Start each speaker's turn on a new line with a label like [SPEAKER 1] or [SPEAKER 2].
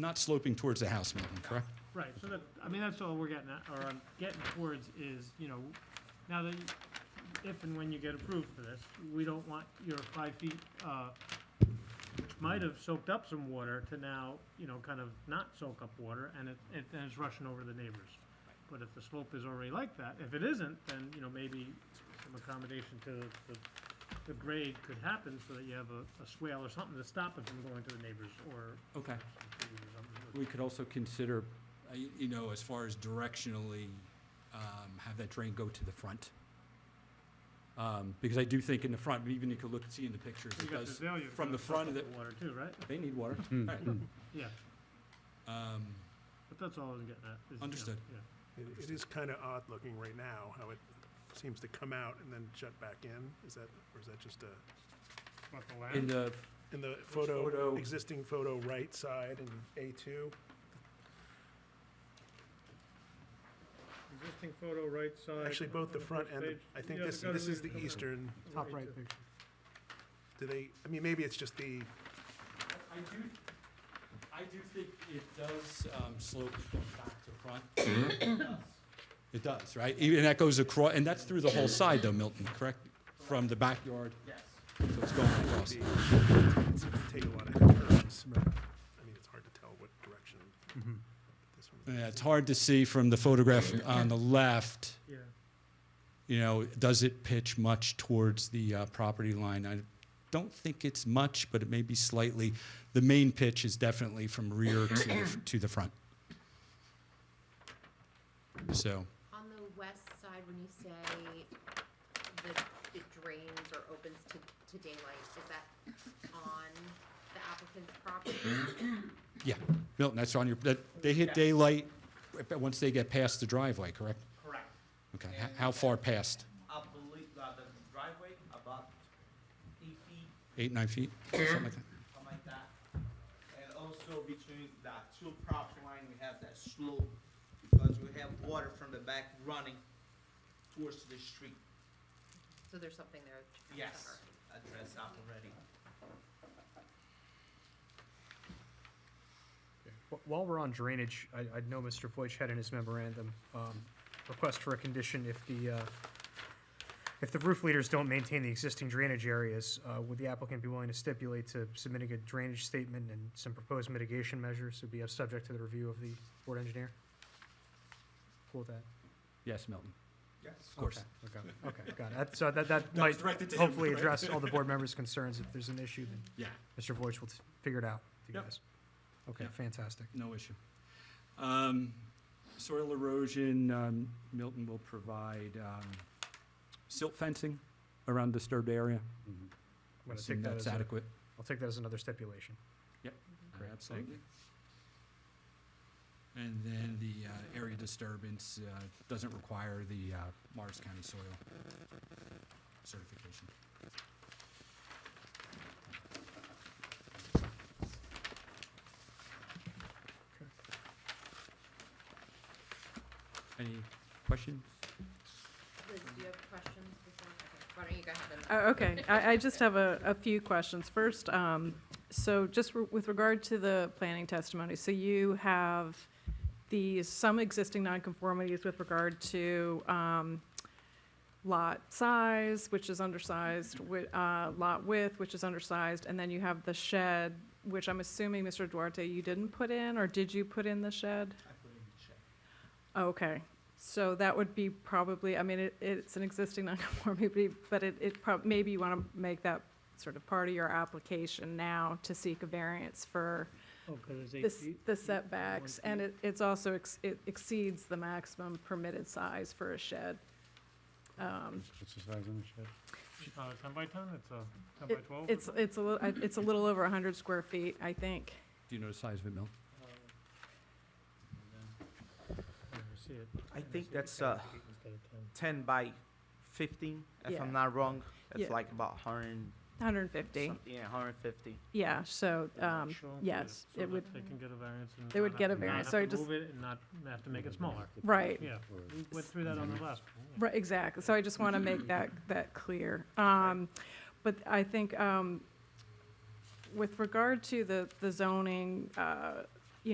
[SPEAKER 1] Not sloping towards the house, maybe, correct?
[SPEAKER 2] Right, so that, I mean, that's all we're getting at, or I'm getting towards is, you know, now that, you- if and when you get approved for this, we don't want your five feet, uh, which might have soaked up some water to now, you know, kind of not soak up water, and it, it, and it's rushing over the neighbors. But if the slope is already like that, if it isn't, then, you know, maybe some accommodation to the, the- the grade could happen so that you have a, a swale or something to stop it from going to the neighbors, or
[SPEAKER 1] Okay.
[SPEAKER 2] some trees or something.
[SPEAKER 1] We could also consider, uh, y- you know, as far as directionally, um, have that drain go to the front. Um, Because I do think in the front, even you could look, see in the pictures,
[SPEAKER 2] You
[SPEAKER 1] it
[SPEAKER 2] got the
[SPEAKER 1] does,
[SPEAKER 2] value
[SPEAKER 1] from the
[SPEAKER 2] soak
[SPEAKER 1] front of
[SPEAKER 2] up
[SPEAKER 1] the-
[SPEAKER 2] Water too, right?
[SPEAKER 1] they need water. Right.
[SPEAKER 2] Yeah,
[SPEAKER 1] Um,
[SPEAKER 2] but that's all I'm getting at. is, you know,
[SPEAKER 1] Understood.
[SPEAKER 2] Yeah,
[SPEAKER 3] It it is kind of odd looking right now, how it seems to come out and then shut back in. Is that, or is that just a,
[SPEAKER 2] about the
[SPEAKER 1] In
[SPEAKER 2] land,
[SPEAKER 1] the,
[SPEAKER 3] in the
[SPEAKER 1] photo?
[SPEAKER 3] photo, existing photo right side in A2?
[SPEAKER 2] existing photo right side.
[SPEAKER 3] Actually, both the
[SPEAKER 2] on
[SPEAKER 3] front
[SPEAKER 2] first
[SPEAKER 3] and, the-
[SPEAKER 2] page.
[SPEAKER 3] I think
[SPEAKER 2] Yeah,
[SPEAKER 3] this,
[SPEAKER 2] gotta
[SPEAKER 3] this is
[SPEAKER 2] leave
[SPEAKER 3] the
[SPEAKER 2] it covered.
[SPEAKER 3] eastern.
[SPEAKER 4] Top right
[SPEAKER 2] too.
[SPEAKER 4] picture.
[SPEAKER 3] Do they, I mean, maybe it's just the,
[SPEAKER 1] I do, I do think it does um, slope from back to front. It does, right? Even that goes across, and that's through the whole side though, Milton, correct? From the backyard? Yes. So it's going across.
[SPEAKER 3] it's take a lot of curves. I mean, it's hard to tell what direction Mm-hmm. this one.
[SPEAKER 1] Yeah, it's hard to see from the photograph on the left,
[SPEAKER 2] Yeah,
[SPEAKER 1] you know, does it pitch much towards the uh, property line? I don't think it's much, but it may be slightly. The main pitch is definitely from rear to, the- to the front. So,
[SPEAKER 5] On the west side, when you say the, it drains or opens to, to daylight, is that on the applicant's property?
[SPEAKER 1] yeah, Milton, that's on your, that, they hit daylight uh, once they get past the driveway, correct?
[SPEAKER 6] Correct.
[SPEAKER 1] Okay, h- how far past?
[SPEAKER 6] I believe uh, the driveway about eight feet,
[SPEAKER 1] Eight, nine feet? Something like that?
[SPEAKER 6] something like that. And also between the two property line, we have that slope because we have water from the back running towards the street.
[SPEAKER 5] So there's something there. to consider.
[SPEAKER 6] Yes, address up already.
[SPEAKER 4] Wh- While we're on drainage, I, I know Mr. Voight had in his memorandum, um, request for a condition if the, uh, if the roof leaders don't maintain the existing drainage areas, uh, would the applicant be willing to stipulate to submitting a drainage statement and some proposed mitigation measures would be subject to the review of the board engineer? Cool with that?
[SPEAKER 1] Yes, Milton,
[SPEAKER 6] Yes.
[SPEAKER 1] of course.
[SPEAKER 4] Okay, okay, okay, got it. So that, that
[SPEAKER 1] was
[SPEAKER 4] might
[SPEAKER 1] directed to him,
[SPEAKER 4] hopefully
[SPEAKER 1] right?
[SPEAKER 4] address all the board members' concerns. If there's an issue, then
[SPEAKER 1] Yeah.
[SPEAKER 4] Mr. Voight will t- figure it out for you
[SPEAKER 1] Yep.
[SPEAKER 4] guys. Okay,
[SPEAKER 1] Yep.
[SPEAKER 4] fantastic.
[SPEAKER 1] No issue. Um, Soil erosion, um, Milton will provide um, silt fencing around disturbed area.
[SPEAKER 4] I'm gonna
[SPEAKER 1] Assume
[SPEAKER 4] take that
[SPEAKER 1] that's
[SPEAKER 4] as a,
[SPEAKER 1] adequate.
[SPEAKER 4] I'll take that as another stipulation. Great,
[SPEAKER 1] Absolutely. And then the uh, area disturbance uh, doesn't require the uh, Morris County soil certification. Any questions?
[SPEAKER 5] Liz, do you have questions before? okay, Why don't you go ahead and?
[SPEAKER 7] Oh, Okay, I, I just have a, a few questions. First, um, so just re- with regard to the planning testimony, so you have the, some existing nonconformities with regard to, um, lot size, which is undersized, wi- uh, lot width, which is undersized, and then you have the shed, which I'm assuming, Mr. Duarte, you didn't put in, or did you put in the shed?
[SPEAKER 6] I put in the check.
[SPEAKER 7] Okay, so that would be probably, I mean, it, it's an existing nonconformity, but it, it prob, maybe you want to make that sort of part of your application now to seek a variance for
[SPEAKER 2] oh, because it's
[SPEAKER 7] the
[SPEAKER 2] eight
[SPEAKER 7] s-
[SPEAKER 2] feet.
[SPEAKER 7] the setbacks, and it, it's also, ex- it exceeds the maximum permitted size for a shed. Um,
[SPEAKER 8] What's the size on the shed?
[SPEAKER 2] Uh, ten by ten, it's a ten by
[SPEAKER 7] it-
[SPEAKER 2] twelve?
[SPEAKER 7] It's, it's a little, it's a little over hundred square feet, I think.
[SPEAKER 1] Do you know the size of it, Mil?
[SPEAKER 2] Uh,
[SPEAKER 6] I think that's uh, ten by fifteen, if
[SPEAKER 7] Yeah.
[SPEAKER 6] I'm not wrong.
[SPEAKER 7] Yeah.
[SPEAKER 6] It's like about hundred
[SPEAKER 7] Hundred and fifty,
[SPEAKER 6] something, yeah, hundred fifty.
[SPEAKER 7] yeah, so, um, yes, it would,
[SPEAKER 2] They can get a variance and.
[SPEAKER 7] They would
[SPEAKER 2] not
[SPEAKER 7] get a
[SPEAKER 2] have- not
[SPEAKER 7] variance,
[SPEAKER 2] have
[SPEAKER 7] so I
[SPEAKER 2] to
[SPEAKER 7] just-
[SPEAKER 2] Move it and not have to make it smaller.
[SPEAKER 7] right.
[SPEAKER 2] Yeah, we went through that on the last one. yeah.
[SPEAKER 7] Right, exactly. So I just want to make that, that clear. Um, But I think um, with regard to the, the zoning, uh,